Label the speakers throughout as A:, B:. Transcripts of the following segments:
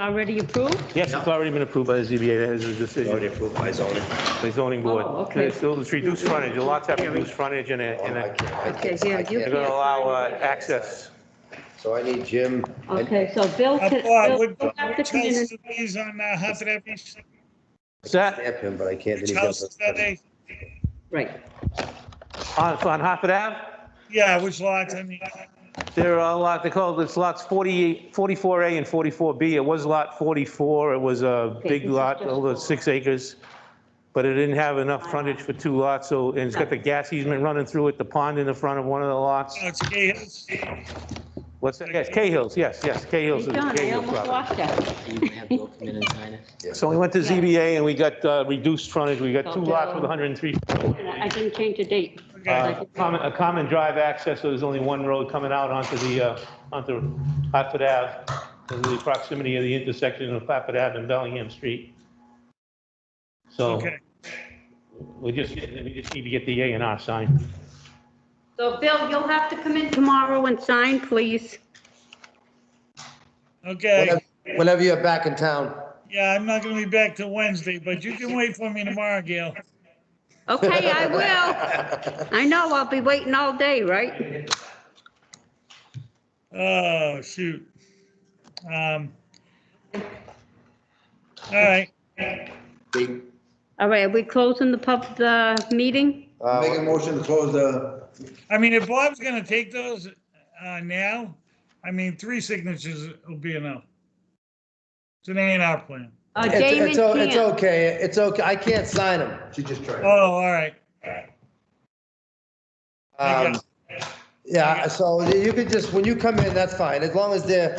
A: Already approved?
B: Yes, it's already been approved by the ZBA, that is a decision,
C: approved by zoning.
B: the zoning board.
A: Oh, okay.
B: It's still- It's reduced frontage, the lots have reduced frontage and a- and a-
A: Okay, here, you
B: they're going
A: can't
B: to allow uh,
A: find it.
B: access.
C: So I need Jim. and-
A: Okay, so Bill
D: Uh,
A: can,
D: Bob,
A: Bill
D: would
A: you have to
D: which
A: come in and
D: houses are these on uh, Hartford Avenue?
B: Is that
C: Stamp him, but I can't.
D: Which houses are they?
A: Right.
B: on on Hartford Ave?
D: Yeah, which lots, I mean, oh,
B: There are a lot, they call it, it's lots 48, 44A and 44B. It was lot 44, it was a big
A: this is
B: lot,
A: just
B: over
A: for-
B: six acres, but it didn't have enough frontage for two lots, so, and it's got the gas easement running through it, the pond in the front of one of the lots.
D: oh, it's Gay Hills.
B: What's that? Yes, Cahill's, yes, yes, Cahill's. is
A: Hey,
B: the
A: John, I
B: Cahill
A: almost
B: property.
A: lost that.
B: So we went to ZBA and we got uh, reduced frontage, we got two lots with 103.
A: I didn't change the date.
D: Okay.
B: Uh, common- A common drive access, so there's only one road coming out onto the, uh, onto Hartford Ave, in the proximity of the intersection of Hartford Ave and Bellingham Street. So
D: Okay.
B: we just, we just need to get the A and R signed.
A: So Bill, you'll have to come in tomorrow and sign, please.
D: Okay,
C: Whenever you're back in town.
D: yeah, I'm not gonna be back till Wednesday, but you can wait for me tomorrow, Gail.
A: Okay, I will. I know, I'll be waiting all day, right?
D: Oh, shoot. Um. All right,
A: All right, are we closing the pub, the meeting?
E: Make a
C: Uh,
E: motion to close the,
D: I mean, if Bob's gonna take those, uh, now, I mean, three signatures will be enough. It's an A and R plan.
A: Uh,
C: It's,
A: Damon
C: it's, o- it's
A: can't.
C: okay, it's okay, I can't sign him. Um,
E: she just
D: Oh,
E: tried.
D: all right. I
C: Um,
D: got-
C: Yeah, so you could just, when you come in, that's fine, as long as they're,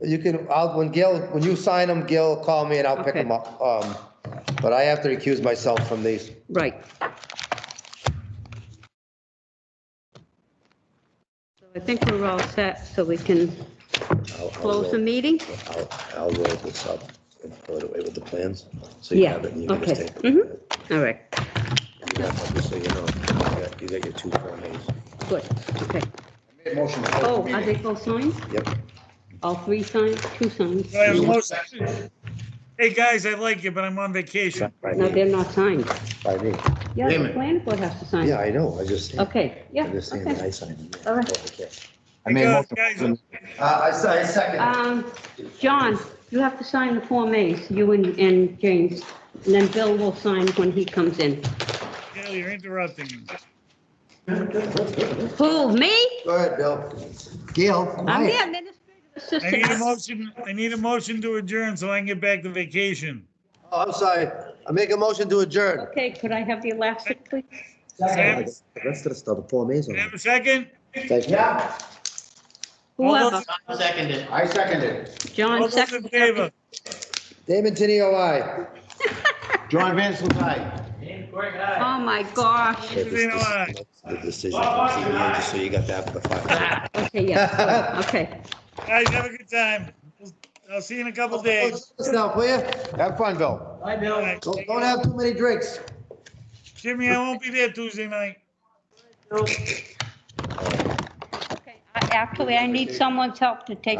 C: you can, I'll, when Gil, when you sign them, Gil, call me and I'll pick
A: Okay.
C: them up. Um, but I have to recuse myself from these.
A: Right. So I think we're all set, so we can
C: I'll- I'll
A: close the
C: roll-
A: meeting?
C: I'll, I'll roll this up and throw it away with the plans, so you
A: Yeah,
C: have it and you can just
A: okay.
C: take it.
A: Mhm. All right,
C: You got- just so you know, you got- you got your two Form As.
A: good, okay.
E: Make a motion to close
A: Oh,
E: the
A: are
E: meeting.
A: they both signed?
C: Yep.
A: All three signed, two signed?
D: Do I have a motion? Hey, guys, I like you, but I'm on vacation.
C: By
A: No,
C: me,
A: they're not signed.
C: by me.
A: Yeah,
E: Wait
A: the
E: a minute.
A: planning board has to sign.
C: Yeah, I know, I just, I
A: Okay, yeah,
C: just saying that
A: okay.
C: I signed them.
A: All right.
C: Okay.
E: I made a
D: Go,
E: motion.
D: guys.
E: Uh, I se- I second.
A: Um, John, you have to sign the Form As, you and, and James, and then Bill will sign when he comes in.
D: Gail, you're interrupting me.
A: Who, me?
C: Go ahead, Bill. Gil.
A: Um, I'm the administrative
D: I need a
A: assistant.
D: motion, I need a motion to adjourn so I can get back to vacation.
C: Oh, I'm sorry. I make a motion to adjourn.
A: Okay, could I have the elastic, please?
D: Second.
C: The rest of the stuff, the Form As on
D: Can I Have
C: it.
D: a second?
C: Thank you.
E: Yeah,
A: Whoever,
E: I seconded.
D: All
A: John
D: those in
A: second.
D: favor?
C: Damon Tenio, aye.
E: John Vance was aye.
A: Oh, my gosh.
C: The
D: Tenio, aye.
C: decision from ZBA, just so you got that for the file.
A: Okay, yeah, good, okay.
D: Guys, have a good time. I'll see you in a couple days.
C: Yourself, will you? Have fun, Bill.
D: All right.
C: Don't don't have too many drinks.
D: Jimmy, I won't be there Tuesday night.
A: Okay, I- Actually, I need someone's help to take